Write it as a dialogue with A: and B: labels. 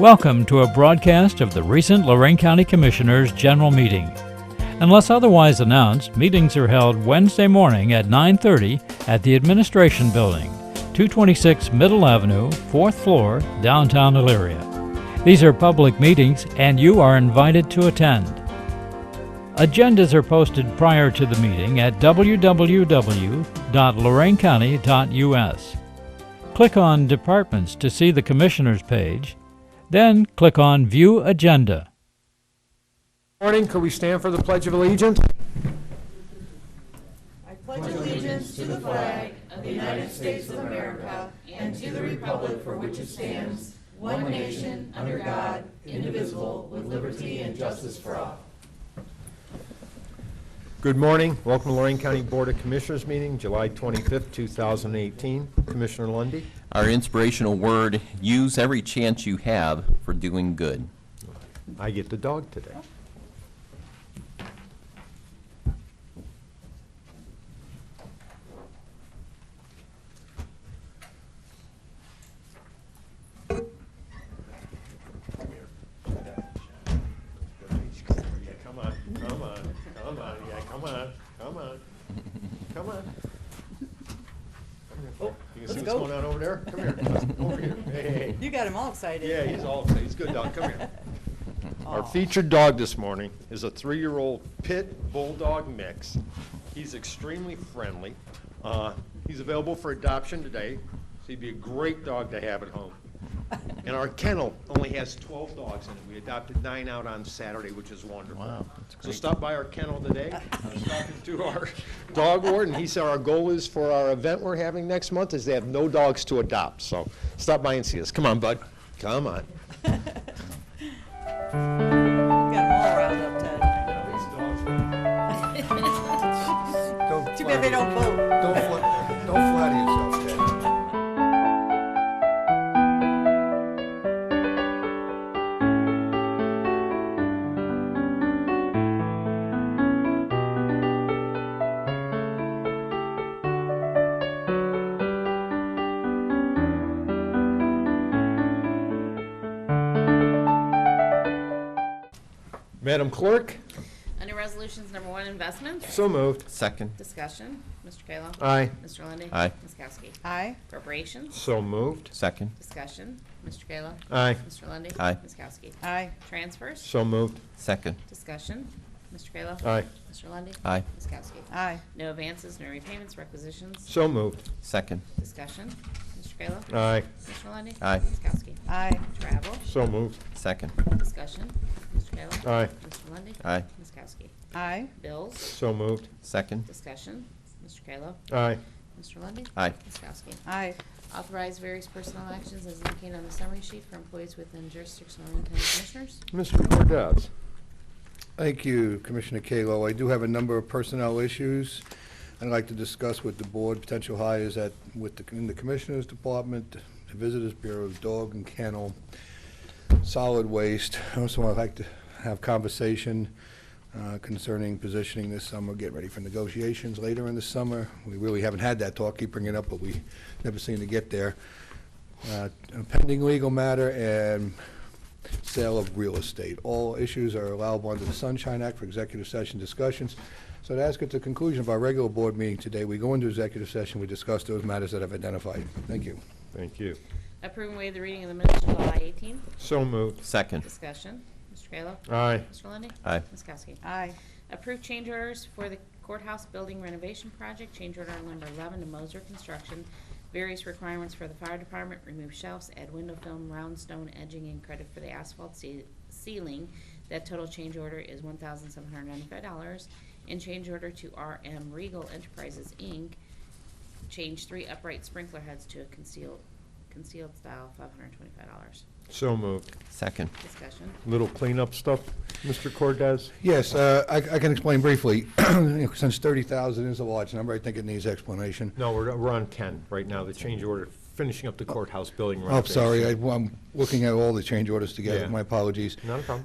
A: Welcome to a broadcast of the recent Lorraine County Commissioners' General Meeting. Unless otherwise announced, meetings are held Wednesday morning at 9:30 at the Administration Building, 226 Middle Avenue, 4th floor, downtown Elyria. These are public meetings and you are invited to attend. Agendas are posted prior to the meeting at www.loraincounty.us. Click on Departments to see the Commissioners page, then click on View Agenda.
B: Morning, could we stand for the Pledge of Allegiance? Good morning, welcome to Lorraine County Board of Commissioners meeting, July 25th, 2018. Commissioner Lundy.
C: Our inspirational word, use every chance you have for doing good.
B: I get the dog today.
D: Yeah, come on, come on, come on, yeah, come on, come on, come on. Come here. You can see what's going on over there? Come here, over here, Hey, hey, hey.
E: You got him all excited.
D: Yeah, he's all, he's a good dog, come here. Our featured dog this morning is a three-year-old pit bulldog mix. He's extremely friendly. Uh, He's available for adoption today, so he'd be a great dog to have at home. And our kennel only has 12 dogs in it. We adopted nine out on Saturday, which is wonderful.
C: Wow, that's
D: So
C: great.
D: stop by our kennel today. I was talking to our dog warden. He said our goal is for our event we're having next month is they have no dogs to adopt. So stop by and see us. Come on, bud. Come on.
E: You got him all riled up, Ted.
B: Don't
E: Too bad they don't vote.
B: Don't flatter yourself, Ted.
D: Madam Clerk?
F: Under Resolutions Number One, Investments,
B: So moved.
C: Second,
F: discussion, Mr. Kayla.
B: Aye.
F: Mr. Lundey.
C: Aye.
F: Ms. Kowski.
E: Aye,
F: Appropriations,
B: So moved.
C: second,
F: discussion, Mr. Kayla.
B: Aye.
F: Mr. Lundey.
C: Aye.
F: Ms. Kowski.
E: aye,
F: Transfers,
B: So moved.
C: second,
F: discussion, Mr. Kayla.
B: Aye.
F: Mr. Lundey.
C: Aye.
F: Ms. Kowski.
E: aye,
F: No advances, no repayments, requisitions,
B: So moved.
C: second,
F: discussion, Mr. Kayla.
B: Aye.
F: Mr. Lundey.
C: Aye.
F: Ms. Kowski.
E: aye,
F: Travel,
B: So moved.
C: second,
F: discussion, Mr. Kayla.
B: Aye.
F: Mr. Lundey.
C: Aye.
F: Ms. Kowski.
E: aye,
F: Bills,
B: So moved.
C: second,
F: discussion, Mr. Kayla.
B: Aye.
F: Mr. Lundey.
C: Aye.
F: Ms. Kowski.
E: aye,
F: Authorize various personnel actions as indicated on the summary sheet for employees within jurisdiction of Lorraine County Commissioners.
B: Mr. Cordez.
G: Thank you, Commissioner Kalo. I do have a number of personnel issues I'd like to discuss with the board, potential hires at, with the, in the Commissioners Department, the Visitors Bureau's Dog and Kennel, Solid Waste. Also, I'd like to have conversation uh, concerning positioning this summer, get ready for negotiations later in the summer. We really haven't had that talk, keep bringing it up, but we never seem to get there. Uh, a Pending legal matter and sale of real estate. All issues are allowable under the Sunshine Act for executive session discussions. So to ask at the conclusion of our regular board meeting today, we go into executive session, we discuss those matters that I've identified. Thank you.
B: Thank you.
F: Approve and waive the reading of the minutes of July 18th.
B: So moved.
C: second,
F: Discussion. Mr. Kayla.
B: Aye.
F: Mr. Lundey.
C: Aye.
F: Ms. Kowski.
E: aye,
F: Approve change orders for the courthouse building renovation project, change order number 11 to Moser Construction. Various requirements for the fire department, remove shelves, add window film, round stone edging, and credit for the asphalt ce- ceiling. That total change order is $1,795. And change order to RM Regal Enterprises, Inc., change three upright sprinkler heads to a concealed, concealed style, $525.
B: So moved.
C: second,
F: Discussion.
B: Little cleanup stuff, Mr. Cordez?
G: Yes, uh, I I can explain briefly. You know, Since 30,000 is a large number, I think it needs explanation.
B: No, we're, we're on 10 right now, the change order, finishing up the courthouse building
G: Oh, I'm
B: renovation.
G: sorry, I- I'm looking at all the change orders together.
B: Yeah.
G: My apologies.
B: Not a problem.